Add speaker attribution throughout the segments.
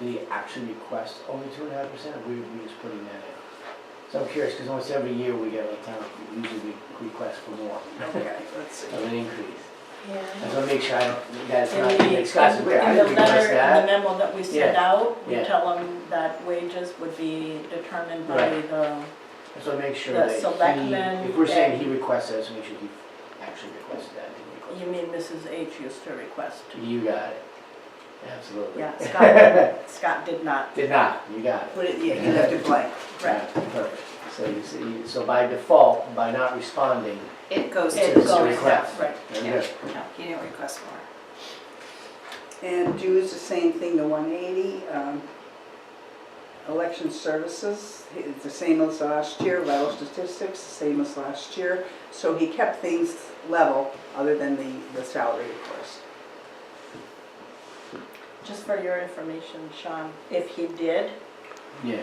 Speaker 1: the action request only two and a half percent, or we, we just putting that in? So I'm curious, because almost every year we get a town, usually we request for more,
Speaker 2: Okay, let's see.
Speaker 1: of an increase. I
Speaker 3: Yeah.
Speaker 1: just want to make sure I don't, that's
Speaker 3: In
Speaker 1: not
Speaker 3: the-
Speaker 1: being discussed,
Speaker 3: in
Speaker 1: where I didn't
Speaker 3: the letter,
Speaker 1: request
Speaker 3: in the
Speaker 1: that.
Speaker 3: memo that we sent
Speaker 1: Yeah.
Speaker 3: out, we
Speaker 1: Yeah.
Speaker 3: tell them that wages would be determined by
Speaker 1: Right.
Speaker 3: the,
Speaker 1: So make sure
Speaker 3: the
Speaker 1: that he,
Speaker 3: selectmen
Speaker 1: if we're saying
Speaker 3: and-
Speaker 1: he requested that, so make sure he actually requested that, didn't request
Speaker 3: you mean Mrs. H used to request.
Speaker 1: it. You got it, absolutely.
Speaker 3: Yeah, Scott, Scott did not,
Speaker 1: Did not, you got it.
Speaker 2: Put it, yeah, you left it blank.
Speaker 3: right.
Speaker 1: Perfect. So you see, so by default, by not responding,
Speaker 4: It goes
Speaker 1: It
Speaker 4: to
Speaker 1: goes.
Speaker 4: the
Speaker 1: request.
Speaker 3: Right.
Speaker 1: very
Speaker 4: Yeah.
Speaker 1: good.
Speaker 4: He didn't request more.
Speaker 2: And dues, the same thing, the one eighty. um, Election services, it's the same as last year, vital statistics, the same as last year. So he kept things level, other than the, the salary, of course.
Speaker 3: Just for your information, Sean, if he did,
Speaker 1: Yeah,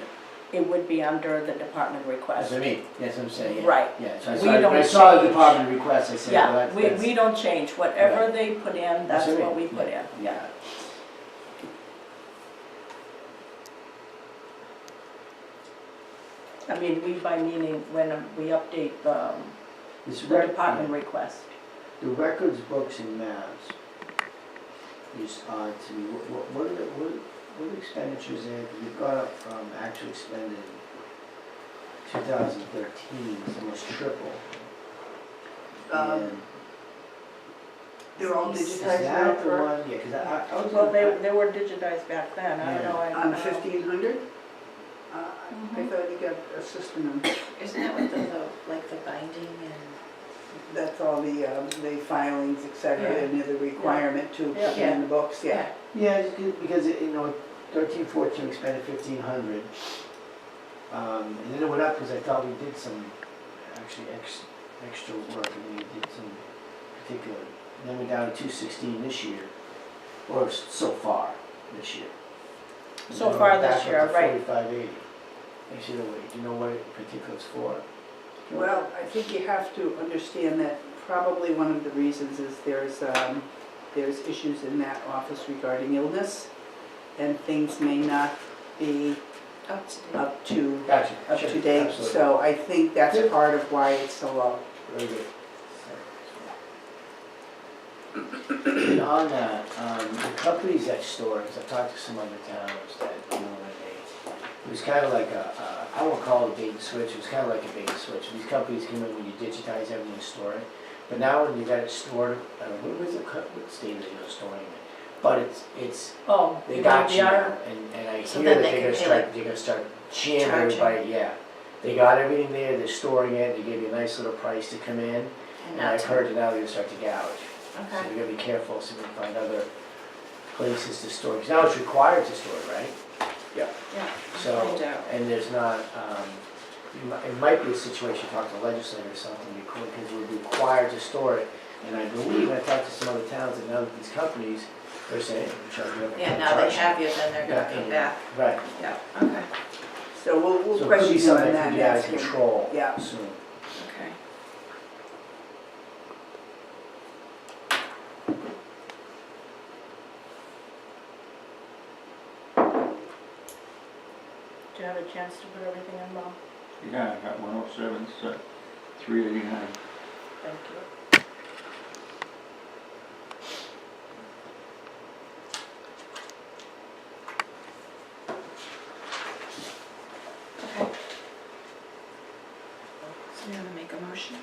Speaker 3: it would be under the department
Speaker 1: that's
Speaker 3: request.
Speaker 1: what I mean, that's what I'm saying. yeah.
Speaker 3: Right.
Speaker 1: Yeah, so I
Speaker 3: We
Speaker 1: saw, when I
Speaker 3: don't
Speaker 1: saw the
Speaker 3: change.
Speaker 1: department request, I said, well,
Speaker 3: Yeah,
Speaker 1: that's.
Speaker 3: we, we don't change, whatever they put in, that's what we put in.
Speaker 1: Yeah.
Speaker 3: I mean, we by meaning when we update the,
Speaker 1: This
Speaker 3: the
Speaker 1: rec-
Speaker 3: department request.
Speaker 1: The records, books, and maps is odd to me. What- What, what are the, what, what expenditures there that you've got up from actual expended two thousand thirteen, it's almost triple.
Speaker 2: Um,
Speaker 1: And
Speaker 2: They're all
Speaker 4: Is
Speaker 1: Is
Speaker 2: digitized now
Speaker 1: that the
Speaker 2: for,
Speaker 1: one, yeah, cause I, I- I was.
Speaker 3: Well,
Speaker 1: gonna-
Speaker 3: they, they were digitized back then, I don't know. I-
Speaker 2: on fifteen hundred? Uh, Mm-hmm. I I
Speaker 4: Mhm.
Speaker 2: thought you got a system in
Speaker 4: Isn't that with the, the- like the binding and?
Speaker 2: That's all the, um, the filings, et cetera,
Speaker 3: Yeah.
Speaker 2: and the other requirement to
Speaker 3: Yeah.
Speaker 2: put in the books, yeah.
Speaker 1: Yeah, it's good, because, it- you know, thirteen, fourteen expended fifteen hundred. Um, and then it went up because I thought we did some, actually, ex, extra work, and we did some particular, and then we're down to two sixteen this year, or s- so far this year. And
Speaker 3: So
Speaker 1: then
Speaker 3: far
Speaker 1: we're
Speaker 3: this
Speaker 1: back up
Speaker 3: year,
Speaker 1: to
Speaker 3: right.
Speaker 1: Forty-five eighty. Actually, no, wait, do you know what it particularly is for?
Speaker 2: Well, I think you have to understand that probably one of the reasons is there's, um, there's issues in that office regarding illness, and things may not be
Speaker 4: Up to date.
Speaker 2: up to,
Speaker 1: Gotcha.
Speaker 2: up
Speaker 1: sure,
Speaker 2: to date.
Speaker 1: absolutely.
Speaker 2: So I think that's
Speaker 1: Yeah.
Speaker 2: part of why it's so low.
Speaker 1: Very good. And on that, um, the companies at stores, I've talked to some other towns that, you know, that they, it was kind of like a, a- I won't call it a bait and switch, it was kind of like a bait and switch. These companies come in when you digitize everything and store it, but now when you got it stored, uh, what was the, co- what state are you storing it? But it's, it's,
Speaker 3: Oh.
Speaker 1: they got you now,
Speaker 3: DDR?
Speaker 1: and, and I
Speaker 4: So
Speaker 1: hear that
Speaker 4: then they
Speaker 1: they're gonna
Speaker 4: can pay,
Speaker 1: start, they're gonna start jamming
Speaker 4: charging?
Speaker 1: everybody, yeah. They got everything there, they're storing it, they give you a nice little price to come in,
Speaker 4: and
Speaker 1: and
Speaker 4: not
Speaker 1: I've
Speaker 4: to-
Speaker 1: heard that now they start to gouge. So
Speaker 4: Okay.
Speaker 1: we gotta be careful, see if we can find other places to store, because now it's required to store, it, right?
Speaker 4: Yeah.
Speaker 1: So,
Speaker 4: Find out.
Speaker 1: and there's not, um, you mi- it might be a situation, talk to legislators or something, because we're required to store it. And I believe, I talked to some other towns, and now that these companies, they're saying, "Charge me up."
Speaker 4: Yeah, now they
Speaker 1: charge me."
Speaker 4: have you, then they're gonna come back.
Speaker 1: Right,
Speaker 4: Yeah, okay,
Speaker 2: So we'll,
Speaker 1: so
Speaker 2: we'll
Speaker 1: it could
Speaker 2: question
Speaker 1: be
Speaker 2: you on
Speaker 1: something
Speaker 2: that.
Speaker 1: that could
Speaker 2: and
Speaker 1: be out of
Speaker 2: ask him.
Speaker 1: control
Speaker 2: Yeah.
Speaker 1: soon.
Speaker 4: okay.
Speaker 3: Do you have a chance to put everything in, Mom?
Speaker 5: Yeah, I got one oh seven, so three eighty-nine.
Speaker 3: Thank you.
Speaker 4: Okay. So you wanna make a motion?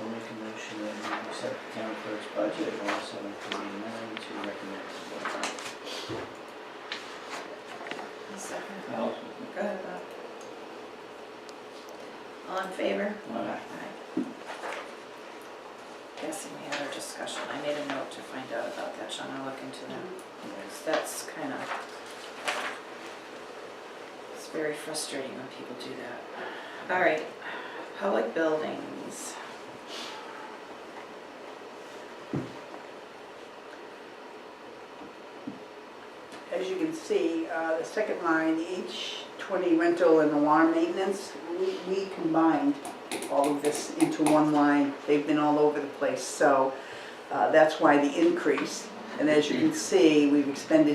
Speaker 1: I'll make a motion that we accept the town clerk's budget of one seven forty-nine to recommend to the board.
Speaker 4: A second.
Speaker 5: Allison?
Speaker 4: Go ahead, Bob. All in favor?
Speaker 5: Aye.
Speaker 4: Aye. Guessing we had our discussion, I made a note to find out about that, Sean, I'll look into that.
Speaker 1: Yes.
Speaker 4: Because that's kind of, it's very frustrating when people do that. All right, public buildings.
Speaker 2: As you can see, uh, the second line, each 20 rental and alarm maintenance, we- we combined all of this into one line. They've been all over the place, so uh, that's why the increase. And as you can see, we've expended